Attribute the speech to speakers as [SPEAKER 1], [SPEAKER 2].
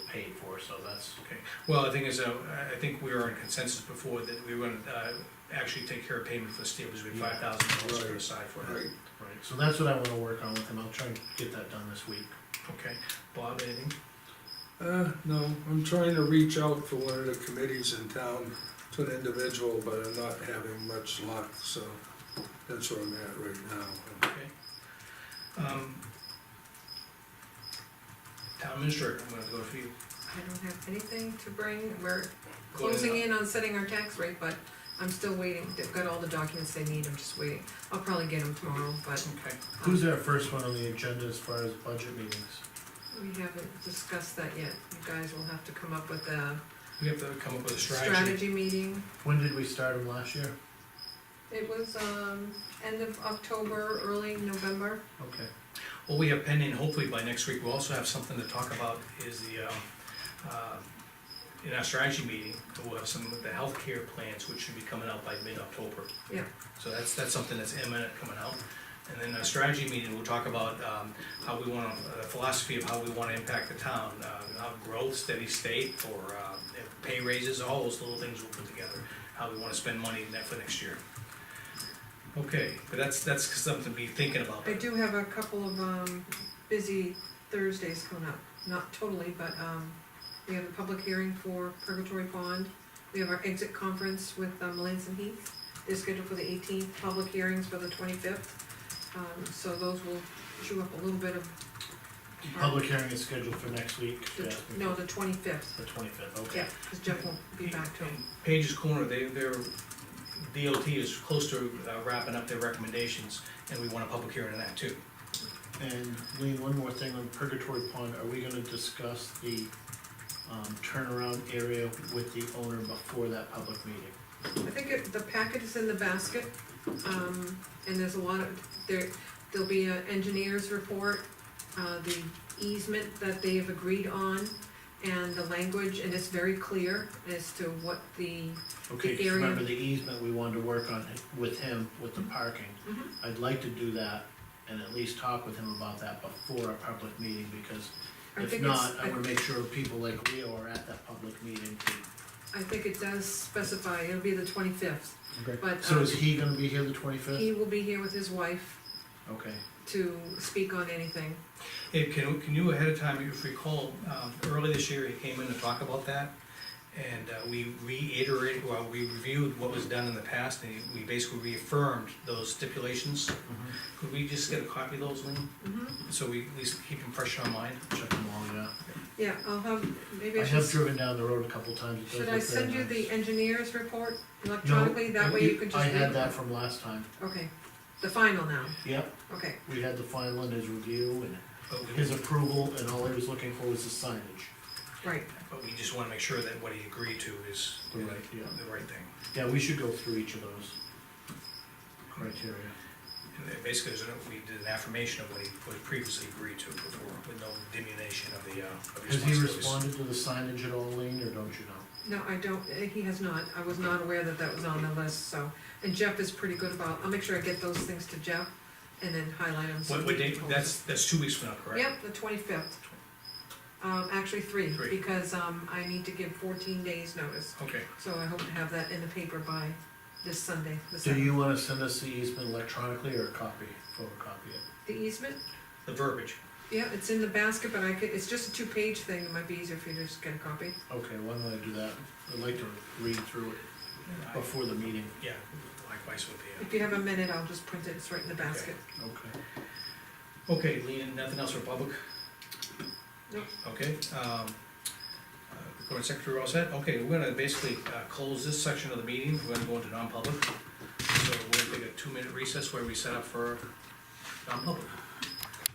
[SPEAKER 1] paid for, so that's,
[SPEAKER 2] Okay, well, the thing is, uh, I I think we were in consensus before that we were gonna, uh, actually take care of payment for the steel, which would be
[SPEAKER 1] Yeah.
[SPEAKER 2] five thousand dollars
[SPEAKER 1] Right.
[SPEAKER 2] put aside for that.
[SPEAKER 1] right, so that's what I wanna work on with him, I'll try and get that done this week.
[SPEAKER 2] Okay, Bob, anything?
[SPEAKER 3] Uh, no, I'm trying to reach out for one of the committees in town to an individual, but I'm not having much luck, so that's where I'm at right now.
[SPEAKER 2] Okay. Um, Town administrator, I'm gonna go for you.
[SPEAKER 4] I don't have anything to bring, we're closing in on setting our tax rate, but I'm still waiting, they've got all the documents they need, I'm just waiting. I'll probably get them tomorrow, but
[SPEAKER 2] Okay,
[SPEAKER 1] Who's our first one on the agenda as far as budget meetings?
[SPEAKER 4] we haven't discussed that yet. You guys will have to come up with a
[SPEAKER 2] we have to come up with a strategy.
[SPEAKER 4] strategy meeting.
[SPEAKER 1] When did we start them last year?
[SPEAKER 4] It was, um, end of October, early November.
[SPEAKER 1] Okay,
[SPEAKER 2] What we have pending, hopefully by next week, we'll also have something to talk about is the, um, uh, in our strategy meeting, we'll have some of the healthcare plans, which should be coming out by mid-October.
[SPEAKER 4] Yeah.
[SPEAKER 2] So that's, that's something that's imminent coming out. And then our strategy meeting, we'll talk about, um, how we wanna, the philosophy of how we wanna impact the town, uh, how growth, steady state, or, um, pay raises, all those little things we'll put together, how we wanna spend money in that for next year. Okay, but that's, that's something to be thinking about.
[SPEAKER 4] I do have a couple of, um, busy Thursdays coming up, not totally, but, um, we have a public hearing for Purgatory Pond. We have our exit conference with, um, Melanson Heath, they're scheduled for the eighteenth, public hearings for the twenty-fifth. Um, so those will chew up a little bit of. our-
[SPEAKER 1] public hearing is scheduled for next week,
[SPEAKER 4] the
[SPEAKER 1] yeah,
[SPEAKER 4] tw- No, the twenty-fifth,
[SPEAKER 1] the twenty-fifth, okay.
[SPEAKER 4] yeah, cause Jeff will be back to him.
[SPEAKER 2] Page's Corner, they, their DOT is close to uh, wrapping up their recommendations, and we want a public hearing on that too.
[SPEAKER 1] And Lean, one more thing on Purgatory Pond, are we gonna discuss the, um, turnaround area with the owner before that public meeting?
[SPEAKER 4] I think it, the packet is in the basket, um, and there's a lot of, there, there'll be an engineer's report, uh, the easement that they have agreed on, and the language, and it's very clear as to what the,
[SPEAKER 1] Okay,
[SPEAKER 4] The
[SPEAKER 1] 'cause
[SPEAKER 4] area.
[SPEAKER 1] remember the easement we wanted to work on hi- with him, with the parking.
[SPEAKER 4] Mm-hmm.
[SPEAKER 1] I'd like to do that and at least talk with him about that before our public meeting, because
[SPEAKER 4] I
[SPEAKER 1] if
[SPEAKER 4] think it's,
[SPEAKER 1] not, I
[SPEAKER 4] I,
[SPEAKER 1] wanna make sure people like Leo are at that public meeting.
[SPEAKER 4] I think it does specify, it'll be the twenty-fifth,
[SPEAKER 1] Okay.
[SPEAKER 4] but,
[SPEAKER 1] So
[SPEAKER 4] um,
[SPEAKER 1] is he gonna be here the twenty-fifth?
[SPEAKER 4] he will be here with his wife
[SPEAKER 1] Okay,
[SPEAKER 4] to speak on anything.
[SPEAKER 2] Hey, can, can you ahead of time, if you recall, um, early this year, he came in to talk about that, and uh, we reiterated, well, we reviewed what was done in the past, and we basically reaffirmed those stipulations.
[SPEAKER 1] Mm-hmm.
[SPEAKER 2] Could we just get a copy of those, Lean,
[SPEAKER 4] hmm
[SPEAKER 2] so we at least keep them fresh in our mind?
[SPEAKER 1] check them all, yeah.
[SPEAKER 4] yeah, I'll have, maybe
[SPEAKER 1] I
[SPEAKER 4] I
[SPEAKER 1] have
[SPEAKER 4] should,
[SPEAKER 1] driven down the road a couple times. it does
[SPEAKER 4] should I
[SPEAKER 1] look very
[SPEAKER 4] send you
[SPEAKER 1] nice.
[SPEAKER 4] the engineer's report electronically, that
[SPEAKER 1] No,
[SPEAKER 4] way you can just
[SPEAKER 1] I
[SPEAKER 4] read
[SPEAKER 1] had
[SPEAKER 4] it?
[SPEAKER 1] that from last time,
[SPEAKER 4] Okay, the final now,
[SPEAKER 1] yep,
[SPEAKER 4] okay,
[SPEAKER 1] we had the final and his review and
[SPEAKER 2] But we-
[SPEAKER 1] his approval, and all he was looking for was the signage.
[SPEAKER 4] right,
[SPEAKER 2] But we just wanna make sure that what he agreed to is the
[SPEAKER 1] Yeah,
[SPEAKER 2] right,
[SPEAKER 1] yeah.
[SPEAKER 2] the right thing.
[SPEAKER 1] Yeah, we should go through each of those criteria.
[SPEAKER 2] And then Basically, there's a- we did an affirmation of what he was previously agreed to before, with no diminution of the, uh, of
[SPEAKER 1] Has he
[SPEAKER 2] responsibilities.
[SPEAKER 1] responded to the signage at all, Lean, or don't you know?
[SPEAKER 4] no, I don't, eh, he has not, I was not aware that that was on the list, so, and Jeff is pretty good about, I'll make sure I get those things to Jeff, and then highlight them. so
[SPEAKER 2] What, what
[SPEAKER 4] he
[SPEAKER 2] date,
[SPEAKER 4] can
[SPEAKER 2] that's, that's two weeks from now,
[SPEAKER 4] post it.
[SPEAKER 2] correct?
[SPEAKER 4] Yep, the twenty-fifth, um, actually three,
[SPEAKER 2] Three.
[SPEAKER 4] because, um, I need to give fourteen days notice,
[SPEAKER 2] Okay,
[SPEAKER 4] so I hope to have that in the paper by this Sunday, the
[SPEAKER 1] Do
[SPEAKER 4] seventh.
[SPEAKER 1] you wanna send us the easement electronically or a copy, photocopy it?
[SPEAKER 4] The easement,
[SPEAKER 2] the verbiage,
[SPEAKER 4] yeah, it's in the basket, but I could, it's just a two-page thing, it might be easier for you to just get a copy.
[SPEAKER 1] Okay, why don't I do that? I'd like to read through it
[SPEAKER 2] I-
[SPEAKER 1] before the meeting.
[SPEAKER 2] Uh, yeah, likewise with the,
[SPEAKER 4] If you have a minute, I'll just print it, it's right in the basket.
[SPEAKER 1] Okay.
[SPEAKER 2] uh, okay, Lean, nothing else for public?
[SPEAKER 4] Nope.
[SPEAKER 2] Okay, um, uh, recording secretary, all set, okay, we're gonna basically, uh, close this section of the meeting, we're gonna go into non-public. So we're gonna take a two-minute recess where we set up for non-public.